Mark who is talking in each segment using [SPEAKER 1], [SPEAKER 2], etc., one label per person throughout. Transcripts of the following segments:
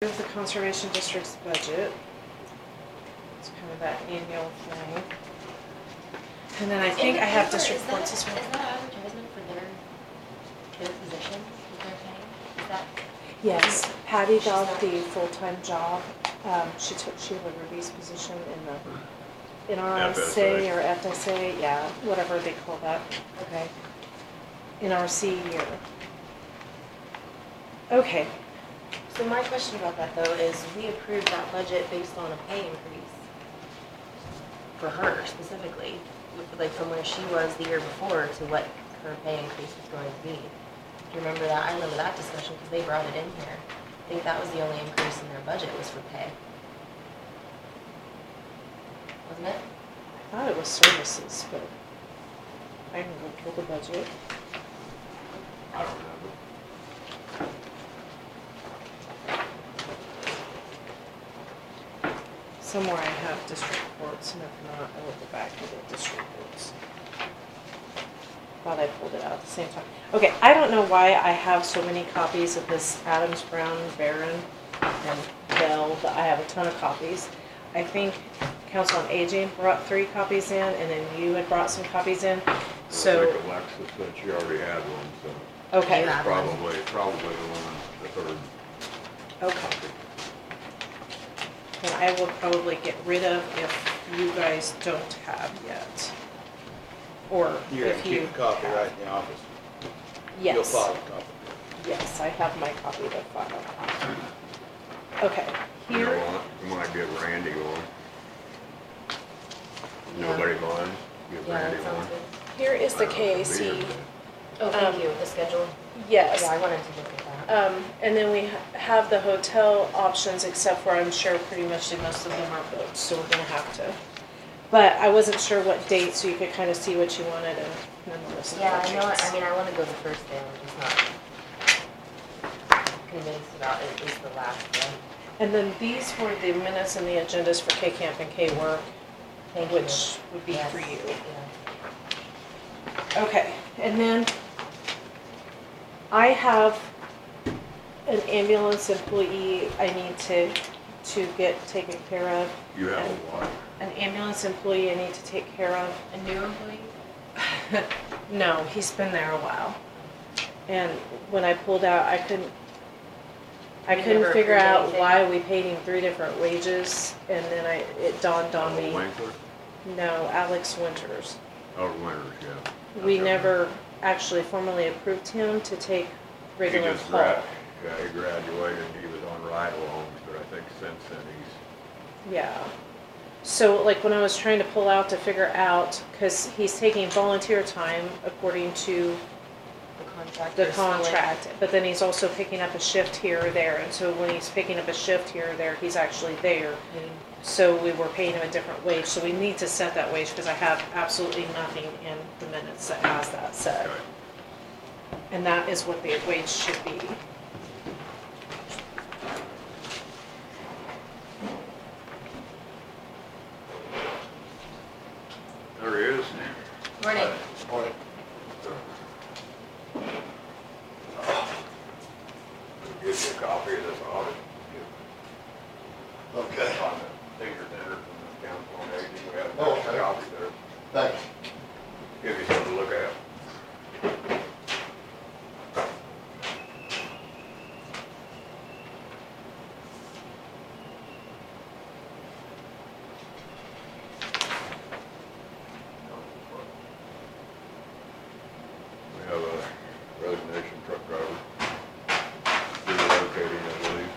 [SPEAKER 1] Here's the Conservation District's budget. It's kind of that annual thing. And then I think I have district courts as well.
[SPEAKER 2] Is that advertisement for their, their position that they're paying? Is that,
[SPEAKER 1] Yes, Patty got the full-time job. Um, she took Sheila Ruby's position in the, in RSA
[SPEAKER 3] FSA.
[SPEAKER 1] or FSA, yeah, whatever they call that. Okay. In our C year. Okay,
[SPEAKER 4] So my question about that though is, we approved that budget based on a pay increase for her specifically, with- like from where she was the year before to what her pay increase was going to be. Do you remember that? I remember that discussion because they brought it in here. I think that was the only increase in their budget was for pay. Wasn't it?
[SPEAKER 1] I thought it was services, but I can go pull the budget.
[SPEAKER 3] I don't remember.
[SPEAKER 1] Somewhere I have district courts, and if not, I will go back to the district courts. Thought I pulled it out at the same time. Okay, I don't know why I have so many copies of this Adams, Brown, Barron, and Bell, but I have a ton of copies. I think Council on Aging brought three copies in, and then you had brought some copies in,
[SPEAKER 3] I
[SPEAKER 1] so,
[SPEAKER 3] think Alexis said she already had one, so
[SPEAKER 1] okay,
[SPEAKER 4] You have one.
[SPEAKER 3] probably, probably the one, the third
[SPEAKER 1] okay.
[SPEAKER 3] copy.
[SPEAKER 1] that I will probably get rid of if you guys don't have yet. Or if you.
[SPEAKER 5] You're gonna keep a copy right in the office. You'll
[SPEAKER 1] Yes.
[SPEAKER 5] file a copy.
[SPEAKER 1] Yes, I have my copy to file. Okay,
[SPEAKER 3] You know
[SPEAKER 1] here,
[SPEAKER 3] what? You might give Randy one. Nobody mind? Give
[SPEAKER 4] yeah,
[SPEAKER 3] Randy
[SPEAKER 4] that sounds
[SPEAKER 3] one.
[SPEAKER 4] good.
[SPEAKER 1] here is the
[SPEAKER 3] I don't know if it'll be
[SPEAKER 1] KAC,
[SPEAKER 3] here,
[SPEAKER 4] Oh,
[SPEAKER 1] Um,
[SPEAKER 4] thank you, the schedule. Yeah,
[SPEAKER 1] yes.
[SPEAKER 4] I wanted to look at that.
[SPEAKER 1] Um, and then we ha- have the hotel options, except for I'm sure pretty much the most of them are booked, so we're gonna have to. But I wasn't sure what date, so you could kind of see what you wanted and none of this.
[SPEAKER 4] Yeah, I know, I mean, I want to go the first day, I'm just not convinced about it is the last day.
[SPEAKER 1] And then these were the minutes and the agendas for K Camp and K Work,
[SPEAKER 4] Thank you.
[SPEAKER 1] which would be
[SPEAKER 4] Yes,
[SPEAKER 1] for you.
[SPEAKER 4] yeah.
[SPEAKER 1] Okay, and then I have an ambulance employee I need to, to get taken care of.
[SPEAKER 3] You have a what?
[SPEAKER 1] An ambulance employee I need to take care of.
[SPEAKER 4] A new employee?
[SPEAKER 1] No, he's been there a while. And when I pulled out, I couldn't, I
[SPEAKER 4] You
[SPEAKER 1] couldn't
[SPEAKER 4] never
[SPEAKER 1] figure
[SPEAKER 4] approved
[SPEAKER 1] out
[SPEAKER 4] anything?
[SPEAKER 1] why we paid him three different wages. And then I, it dawned on me,
[SPEAKER 3] Winkler?
[SPEAKER 1] no, Alex Winters.
[SPEAKER 3] Oh, Winters, yeah.
[SPEAKER 1] We
[SPEAKER 3] Okay.
[SPEAKER 1] never actually formally approved him to take
[SPEAKER 3] He
[SPEAKER 1] regular
[SPEAKER 3] just
[SPEAKER 1] call.
[SPEAKER 3] grad, yeah, he graduated, he was on ride-alongs, but I think since then he's,
[SPEAKER 1] Yeah. So like when I was trying to pull out to figure out, because he's taking volunteer time according to
[SPEAKER 4] The contract.
[SPEAKER 1] the contract, but then he's also picking up a shift here or there. And so when he's picking up a shift here or there, he's actually there. So we were paying him a different wage. So we need to set that wage because I have absolutely nothing in the minutes that has that set.
[SPEAKER 3] okay.
[SPEAKER 1] And that is what the wage should be.
[SPEAKER 3] There he is.
[SPEAKER 4] Morning.
[SPEAKER 5] Morning.
[SPEAKER 3] Give you a copy of this audit.
[SPEAKER 5] Okay,
[SPEAKER 3] On the senior center from the council on aging, we have
[SPEAKER 5] Oh,
[SPEAKER 3] a
[SPEAKER 5] okay.
[SPEAKER 3] copy there.
[SPEAKER 5] thanks.
[SPEAKER 3] Give you something to look at. We have a resignation truck driver. Relocating, I believe.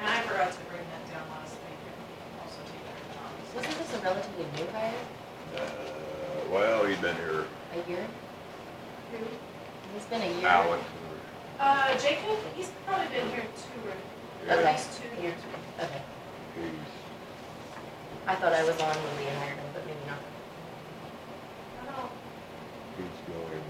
[SPEAKER 1] And I forgot to bring that down last week and also take that
[SPEAKER 4] Wasn't this a relatively new hire?
[SPEAKER 3] Uh, well, he'd been here,
[SPEAKER 4] A year? It's been a year.
[SPEAKER 3] Alex.
[SPEAKER 1] Uh, Jacob, he's probably been here two or,
[SPEAKER 3] yeah,
[SPEAKER 4] Okay.
[SPEAKER 1] two years.
[SPEAKER 4] Okay.
[SPEAKER 3] He's
[SPEAKER 4] I thought I was on when we hired him.